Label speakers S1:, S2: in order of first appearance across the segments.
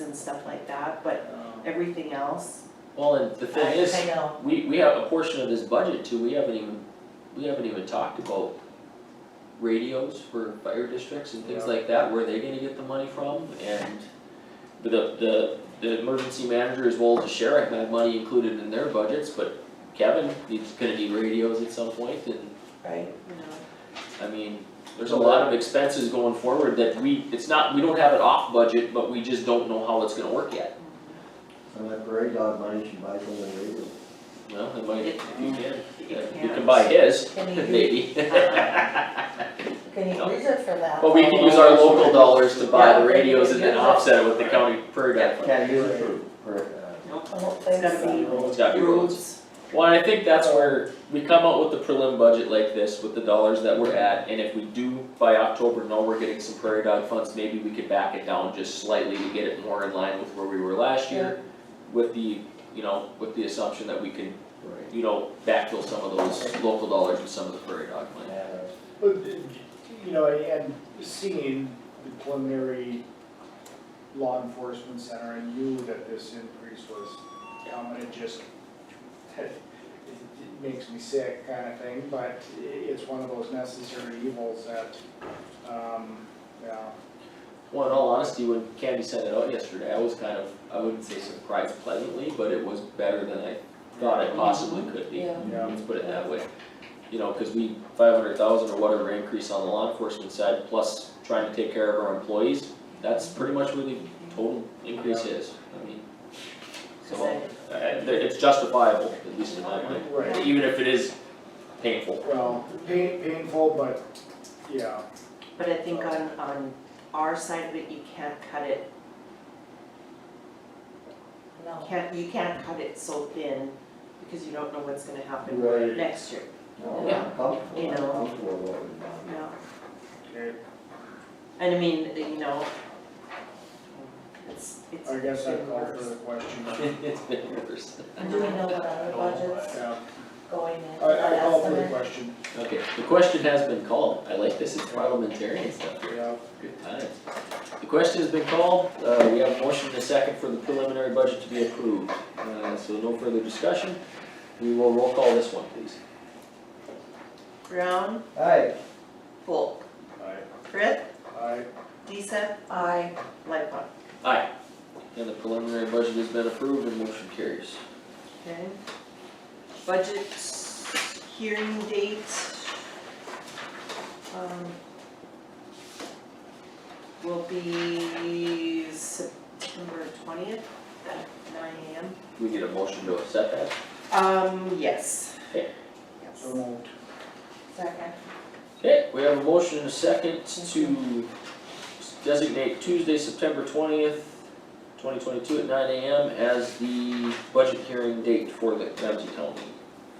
S1: and stuff like that, but everything else,
S2: Well, and the
S3: I,
S2: thing is,
S3: I know,
S2: we, we have a portion of this budget too, we haven't even, we haven't even talked about radios for fire districts and things
S4: Yeah.
S2: like that, where they're gonna get the money from, and the, the, the emergency manager as well as the sheriff have money included in their budgets, but Kevin, he's gonna need radios at some point, and,
S3: right?
S1: you know,
S2: I mean, there's a lot of expenses going forward that we, it's not, we don't have it off budget, but we just don't know how it's gonna work yet,
S4: And that parade dog money should buy something legal.
S2: you know, it might, if you can,
S1: It
S2: you can buy his,
S3: Can you-
S2: maybe.
S3: Can you
S2: No.
S3: use it for that?
S2: But we can use our local dollars to buy the radios and then offset it with the county per guy.
S4: Can't use it for, for, uh,
S3: I don't
S1: it's
S3: think
S1: gotta
S3: so.
S1: be
S2: It's gotta be roads.
S1: roads.
S2: Well, and I think that's where we come out with the prelim budget like this, with the dollars that we're at, and if we do by October know we're getting some prairie dog funds, maybe we could back it down just slightly to get it more in line with where we were last year. With the, you know, with the assumption that we can,
S4: right.
S2: you know, backfill some of those local dollars with some of the prairie dog money.
S4: Yeah.
S5: Well, d- You know, and seeing the preliminary law enforcement center, I knew that this increase was coming, it just, it it makes me sick kind of thing, but i- it's one of those necessary evils that, um, yeah.
S2: Well, in all honesty, when Candy sent it out yesterday, I was kind of, I wouldn't say surprised pleasantly, but it was better than I thought it possibly could be.
S3: Yeah.
S5: Yeah.
S2: Let's put it that way. You know, cause we, five hundred thousand or whatever increase on the law enforcement side, plus trying to take care of our employees, that's pretty much where the total increase is, I mean. So, uh, it's justifiable, at least in my mind,
S5: Right,
S2: even if it is painful.
S5: well, pain, painful, but, yeah,
S1: But I think on, on our side of it, you can't cut it,
S3: No,
S1: can't, you can't cut it so thin because you don't know what's gonna happen
S4: Right.
S1: next year,
S4: No,
S1: Yeah.
S4: I'm comfortable,
S1: You
S4: I'm
S1: know.
S4: comfortable with what we've
S1: you
S4: done.
S1: know?
S5: okay,
S1: And I mean, you know, it's, it's
S5: I guess I
S1: been
S5: call
S1: worse.
S5: for the question.
S2: It's been worse.
S3: do we know what other budget's
S5: Yeah,
S3: going in,
S5: I, I
S3: that
S5: call for the
S3: estimate?
S5: question,
S2: Okay, the question has been called, I like this, it's parliamentarian stuff here.
S5: yeah.
S2: Good times. The question has been called, uh, we have a motion and a second for the preliminary budget to be approved, uh, so no further discussion. We will roll call this one, please.
S1: Brown,
S4: Aye,
S1: Volk,
S5: I,
S1: Frith,
S5: I,
S1: Decep,
S3: I,
S1: Lightfoot.
S2: Aye. And the preliminary budget has been approved and motion carries.
S1: Okay. Budget hearing date. um, Will be September twentieth at nine AM.
S2: We get a motion to accept that.
S1: Um, yes.
S2: Okay.
S1: Yes.
S5: so moved.
S3: second,
S2: Okay, we have a motion and a second to designate Tuesday, September twentieth, twenty twenty-two at nine AM as the budget hearing date for the Ramsey County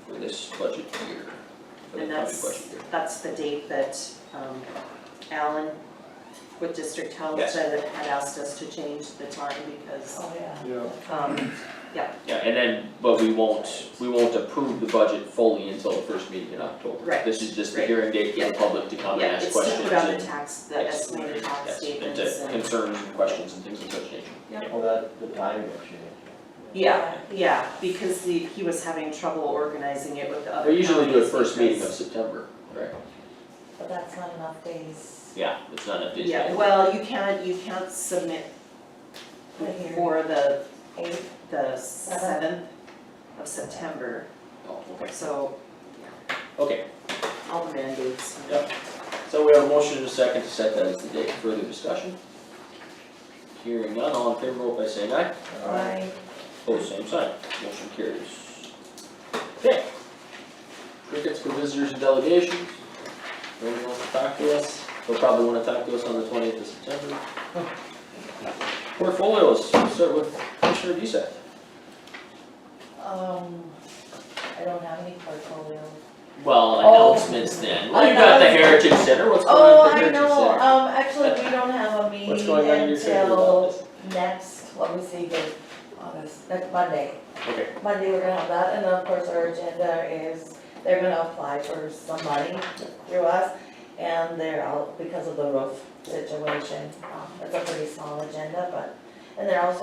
S2: for this budget year. for the
S1: And
S2: county
S1: that's-
S2: budget year.
S1: That's the date that um, Alan with District Health
S2: Yes.
S1: said had asked us to change the time because,
S3: oh yeah.
S5: Yeah.
S1: um,
S2: Yeah, and then, but we won't, we won't approve the budget fully until the first meeting in October.
S1: Right,
S2: This is just the
S1: right.
S2: hearing date for the public to come and
S1: yeah,
S2: ask
S1: it's to
S2: questions
S1: put on the
S2: and.
S1: tax, the estimated tax statements and.
S2: Yes, and to concerns and questions and things of such nature.
S4: well, that, the timing will change.
S1: Yeah, yeah, because the, he was having trouble organizing it with the other
S2: They
S1: counties.
S2: usually do it first meeting of
S1: because-
S2: September, right?
S3: But that's not enough days
S2: Yeah, it's not a busy.
S1: Yeah, well, you can't, you can't submit
S3: Right here. Uh-huh.
S1: for the,
S3: eight,
S1: the seventh of September,
S2: Oh, okay,
S1: so
S2: okay,
S1: all the mandates.
S2: Yep. so we have a motion and a second to set that as the date, further discussion? Hearing none, all in favor, vote by saying aye.
S3: I,
S2: Pose same sign, motion carries. Okay. Crickets for visitors and delegations. No one wants to talk to us, they'll probably wanna talk to us on the twentieth of September. Portfolios, we'll start with Commissioner Desack.
S3: um, I don't have any portfolio.
S2: Well,
S3: Oh.
S2: announcements then, well, you got the Heritage Center, what's going
S3: Oh,
S2: on at the
S3: I
S2: Heritage Center?
S3: know, um, actually, we don't have a meeting
S2: What's going on in your center
S3: until
S2: office?
S3: next, what was the date, August, next Monday.
S2: Okay.
S3: Monday, we're gonna have that, and then of course, our agenda is, they're gonna apply for some money through us, and they're out because of the roof situation, um, it's a pretty small agenda, but, and they're also